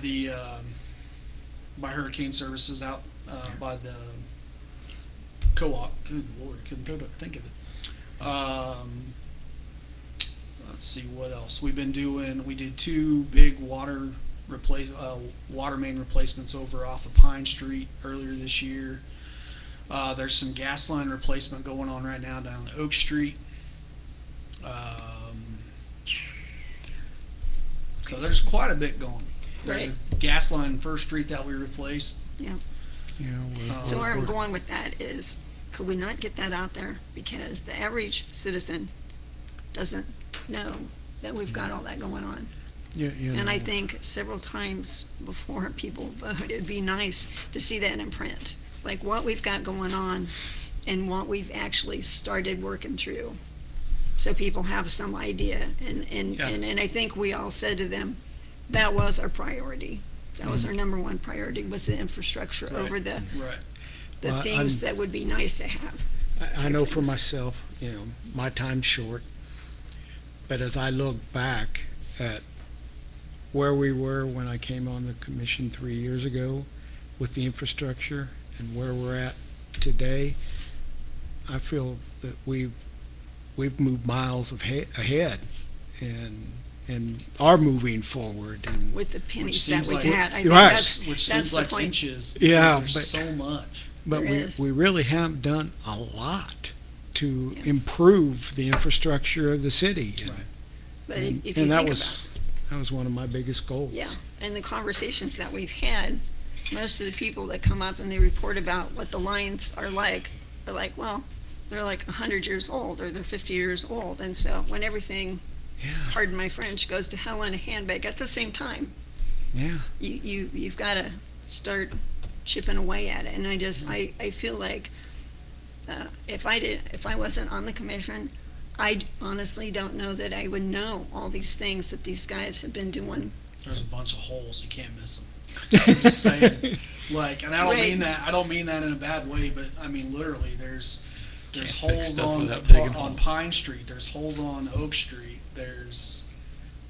the, um, by Hurricane Services out, uh, by the co-op, good lord, couldn't think of- think of it. Um, let's see, what else? We've been doing, we did two big water replace, uh, water main replacements over off of Pine Street earlier this year. Uh, there's some gas line replacement going on right now down Oak Street. Um, so there's quite a bit going. There's a gas line First Street that we replaced. Yeah, Yeah, well, so where I'm we're- going with that is, could we not get that out there? Because the average citizen doesn't know that we've got all that going on. yeah, yeah, And I no. think several times before people vote, it'd be nice to see that in print, like what we've got going on and what we've actually started working through. So people have some idea and, and, Yeah. and, and I think we all said to them, that was our priority. That Mm-hmm. was our number one priority was the infrastructure over the, Right. the Well, things I'm- that would be nice to have. I, I know for things. myself, you know, my time's short. But as I look back at where we were when I came on the commission three years ago with the infrastructure and where we're at today, I feel that we've we've moved miles of he- ahead and and are moving forward and With the pennies that seems we've like- had, I think Right. that's, Which that's seems the like point. inches. because Yeah, There's but- so much. But There we, is. we really have done a lot to Yeah. improve the infrastructure of the city. and- Right. But if you think And that about was, that was one of my biggest goals. Yeah, and the conversations that we've had, most of the people that come up and they report about what the lines are like, are like, well, they're like a hundred years old or they're fifty years old, and so when everything, Yeah, pardon my French, goes to hell in a handbag at the same time, yeah. you, you, you've gotta start chipping away at it, and I just, I, I feel like, uh, if I did, if I wasn't on the commission, I honestly don't know that I would know all these things that these guys have been doing There's a bunch of holes. You can't miss them. I'm just saying. Like, and I don't Right. mean that. I don't mean that in a bad way, but I mean literally. There's there's Can't fix holes stuff on without Pa- digging on holes. Pine Street. There's holes on Oak Street. There's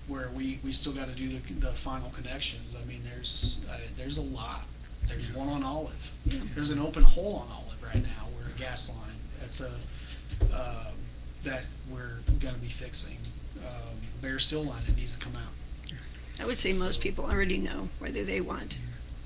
where we we still got to do the, the final connections. I mean, there's uh, there's a lot. There's one on Olive. There's an open hole on Olive right now where a gas line. That's a um, that we're gonna be fixing. Um, Bear Steel line that needs to come out. I would say most So- people already know whether they want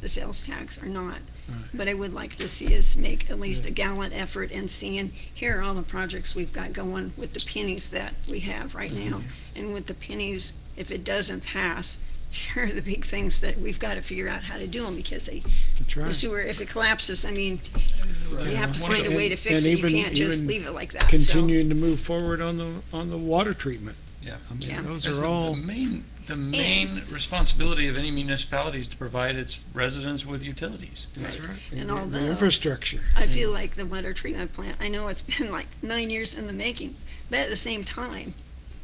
the sales tax or not. Right. But I would like to see us make at least a gallant effort in seeing, here are all the projects we've got going with the pennies that we have right now. Mm-hmm. And with the pennies, if it doesn't pass, here are the big things that we've got to figure out how to do them because they, That's the right. sewer, if it collapses, I mean, you have to One of find a the- way to fix and it. You even- can't just even leave it like that. So- Continuing to move forward on the, on the water treatment. Yeah. I Yeah. mean, those That's are the- all, The main, the main responsibility of any municipality is to provide its residents with utilities. that's right. And the- although- The infrastructure. I feel like the water treatment plant, I know it's been like nine years in the making, but at the same time,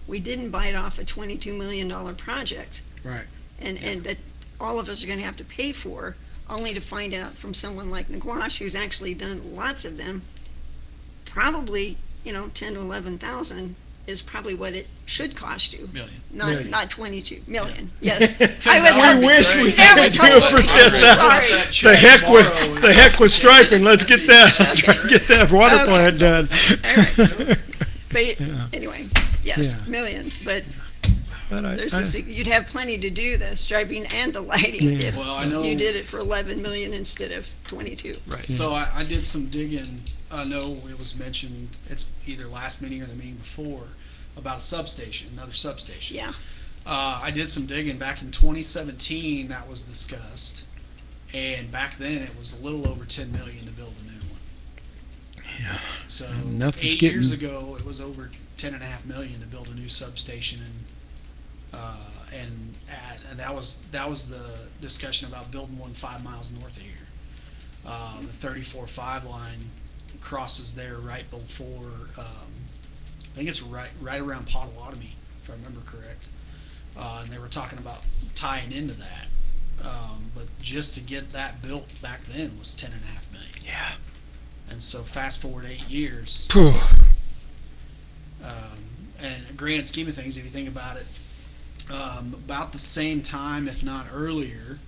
we didn't bite off a twenty-two million dollar project Right. and, and that all of us are gonna have to pay for, only to find out from someone like Naglosh, who's actually done lots of them, probably, you know, ten to eleven thousand is probably what it should cost you, Million. not, Million. not twenty-two million, yes. I was I hoping- wish we that could was do it for hopeful. ten I'm thousand. Sorry. The heck with, the heck with striping, let's get that, let's try to get that water Okay. plant done. But Yeah. anyway, yes, Yeah. millions, but But I- there's I- a sig- you'd have plenty to do the striping and the lighting Yeah. if Well, I know- you did it for 11 million instead of 22. Right. So I, I did some digging. I know it was mentioned, it's either last meeting or the meeting before, about a substation, another substation. Yeah, Uh, I did some digging back in 2017. That was discussed, and back then it was a little over 10 million to build a new one. Yeah. So Nothing's eight getting- years ago, it was over 10 and a half million to build a new substation, and uh, and at, and that was that was the discussion about building one five miles north of here. Uh, the 34 five line crosses there right before. Um, I think it's right right around Potawatomi, if I remember correct uh, and they were talking about tying into that. Um, but just to get that built back then was ten and a half million. Yeah. And so fast forward eight years, Phew. um, and in the grand scheme of things, if you think about it, um, about the same time, if not earlier,